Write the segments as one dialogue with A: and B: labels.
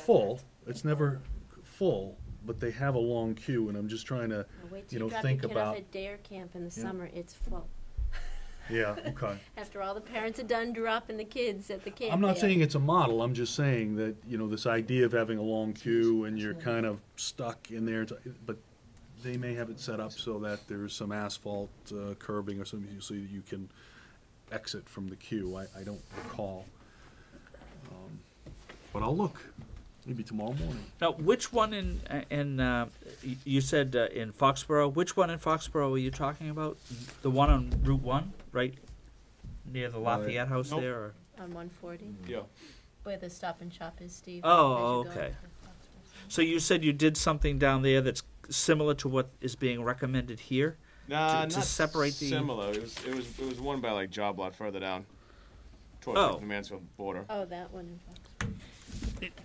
A: full, it's never full, but they have a long queue, and I'm just trying to,
B: Now Wait
A: you
B: till
A: know,
B: you drop your
A: think
B: kid off
A: about,
B: at dare camp in the
A: Yeah.
B: summer, it's full.
A: yeah, okay.
B: After all the parents are done dropping the kids at the camp.
A: I'm not
B: there.
A: saying it's a model, I'm just saying that, you know, this idea of having a long queue and you're kind of stuck in there, it's- but they may have it set up so that there's some asphalt uh, curbing or something, so you can exit from the queue, I, I don't recall. Um, But I'll look, maybe tomorrow morning.
C: Now, which one in in uh, y- you said uh, in Foxborough? Which one in Foxborough are you talking about? The one on Route One, right near the Lafayette House
D: Nope.
C: there? Or?
B: On one forty,
D: Yeah.
B: where the stop and shop is, Steve.
C: Oh,
B: as you go
C: okay.
B: up
C: So you said you did something down there that's similar to what is being recommended here.
D: Nah,
C: to
D: not
C: separate the-
D: similar. It was it was it was one by like job lot further down, towards
C: Oh.
D: the Mansfield border.
B: to- Oh, that one in Fox.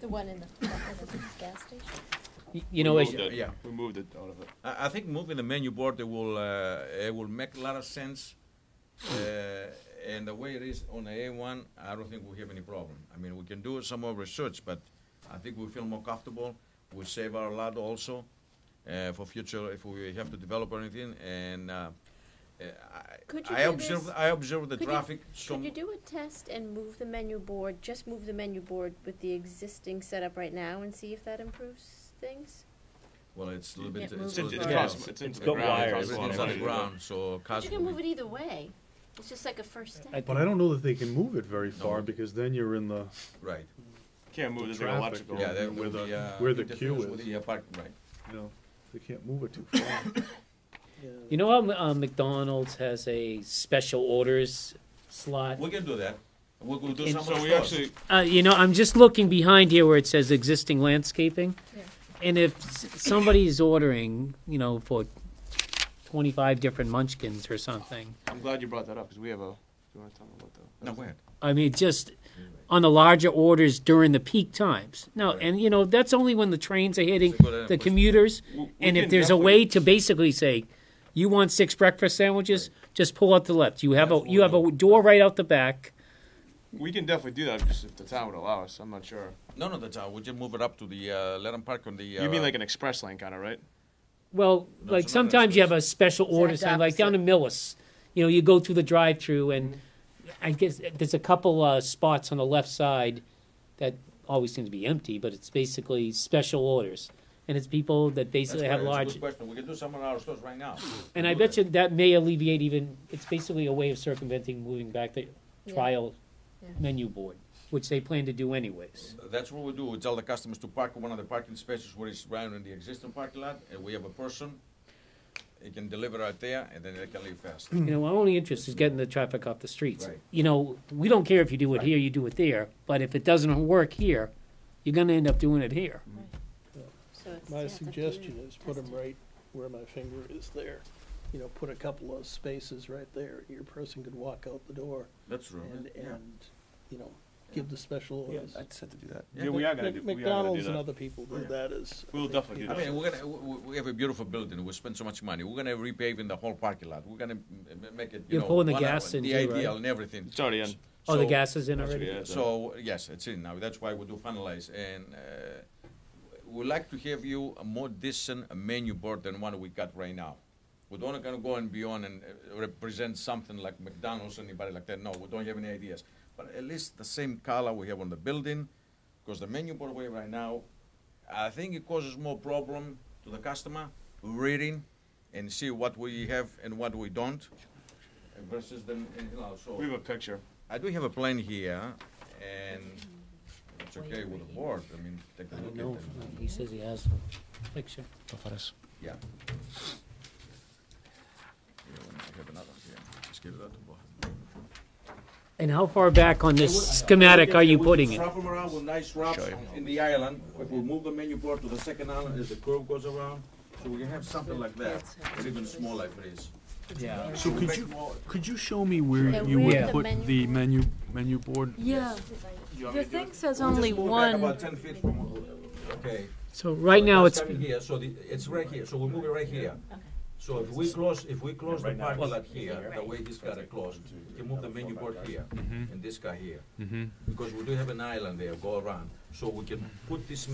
B: The one in the, the gas station?
E: Y-
D: We
E: You know, as,
D: moved it.
F: yeah.
D: we moved it out of it.
F: I, I think moving the menu board it will uh, it will make a lot of sense. Uh, and the way it is on the A1, I don't think we have any problem. I mean, we can do some more research, but I think we feel more comfortable. We save our lot also uh, for future if we have to develop or anything. And uh, uh, I,
B: Could you
F: I
B: do
F: observe
B: this-
F: I observe the
B: could you-
F: traffic. so
B: Could you do a test and move the menu board, just move the menu board with the existing setup right now and see if that improves things?
F: well, it's a little
B: You
F: bit.
B: can't move
D: It's, in,
B: it
D: it's,
B: Yeah.
D: across, it's into
E: It's
D: the
E: got
D: ground. It
E: wires.
D: costs a lot
F: It's
D: of
F: on
D: money to
F: the
D: do.
F: ground, so
B: But
F: cars
B: you can
F: will
B: move
F: be-
B: it either way, it's just like a first step.
E: I-
A: But I don't know that they can move it very far,
F: No.
A: because then you're in the,
F: right.
D: Can't move. There's
A: The traffic,
D: like electrical.
F: Yeah, that
A: where
F: would
A: the-
F: be, uh,
A: where the queue
F: interference with
A: is.
F: the, uh, park- right.
A: you know, they can't move it too far.
E: you know how um, McDonald's has a special orders slot?
F: We can do that. We'll, we'll do
E: In-
F: some.
D: So
F: of
D: we
F: those.
D: actually
E: Uh, you know, I'm just looking behind here where it says existing landscaping.
B: Yeah.
E: And if s- somebody's ordering, you know, for 25 different munchkins or something,
D: I'm glad you brought that up because we have a. Do you want to tell me about that?
F: No, go ahead.
E: I mean, just on the larger orders during the peak times. Now,
F: Right.
E: and you know, that's only when the trains are hitting
F: So go ahead and
E: the
F: push-
E: commuters.
D: We- we
E: And if
D: can
E: there's a
D: definitely-
E: way to basically say, you want six breakfast sandwiches, just pull out the left. You have a you have a door right out the back.
D: We can definitely do that just if the town would allow us. I'm not sure.
F: No, no, that's, uh, we just move it up to the, uh, let 'em park on the. Uh,
D: You mean like an express lane kind of, right?
E: Well,
F: No,
E: like
F: it's not
E: sometimes you have
F: express.
E: a special order
B: Exact
E: sign, like down
B: opposite.
E: in Millis. You know, you go through the drive-through, and I guess there's a couple uh, spots on the left side that always seem to be empty, but it's basically special orders, and it's people that
F: That's
E: basically
F: great.
E: have
F: That's a
E: large.
F: good question. We can do some of our stores right now.
E: And I
F: Do
E: bet
F: that.
E: you that may alleviate even. It's basically a way of circumventing moving back the
B: Yeah.
E: trial
B: Yeah.
E: menu board, which they plan to do anyways.
F: That's what we do. We tell the customers to park in one of the parking spaces where it's right in the existing parking lot, and we have a person. He can deliver out there, and then they can leave fast.
E: You know, our only interest is getting the traffic off the streets.
F: Hmm. Right.
E: You know, we don't care if you do it here, you do it there, but if it doesn't work here, you're gonna end up doing it here.
B: So it's- yeah,
G: My
B: it's up to you
G: suggestion
B: to
G: is put
B: test
G: them
B: it.
G: right where my finger is there. You know, put a couple of spaces right there. Your person could walk out the door
F: That's true.
D: Mm-hmm.
G: and,
F: Yeah.
G: and, you know, give the special orders.
D: said to do that.
F: Yeah,
D: Yeah, we are gonna
G: Mc-
D: do. we are gonna do
G: McDonald's and
D: that.
G: other people do that as.
D: We'll definitely do
F: I
D: that.
F: mean, we're gonna, we, we have a beautiful building. We spend so much money. We're gonna repave in the whole parking lot. We're gonna m- m- make it, you
E: You're
F: know.
E: pulling the
F: one hour,
E: gas in
F: The
E: too, right?
F: ideal and everything.
D: It's already in.
E: Oh, the
F: So-
E: gas is in
D: Actually,
E: already?
D: yeah, it's in.
F: So, yes, it's in now. That's why we do finalize. And uh, we'd like to have you a more decent menu board than what we got right now. We don't gonna go and beyond and uh, represent something like McDonald's, anybody like that. No, we don't have any ideas. But at least the same color we have on the building, because the menu board we have right now, I think it causes more problem to the customer reading and see what we have and what we don't uh, versus then, you know, so.
D: We have a picture.
F: I do have a plan here, and it's okay with the board, I mean, take a
E: I don't
F: look
E: know,
F: at it.
E: he says he has a picture.
F: Yeah. Yeah, well, I have another, yeah, just give that to Bob.
E: And how far back on this schematic are you putting it?
F: Wrap 'em around with nice wraps in the island, if we move the menu board to the second island as the curve goes around, so we can have something like that, or even smaller if it is.
E: Yeah.
A: So could
F: Make
A: you,
F: more-
A: could you show me where
B: Yeah,
A: you
B: where
A: would
B: the
A: put
B: menu
A: the menu, menu board?
H: Yeah, your thing says
F: We'll just
H: only
F: move back
H: one.
F: About ten feet from, okay.
E: So right now,
F: That's
E: it's,
F: coming here, so the, it's right here, so we move it right here. So if we close, if we close the parking lot here, the way this got it closed, we can move the menu board here,
E: Mm-hmm.
F: and this guy here. Because we do have an island there, go around, so we can put this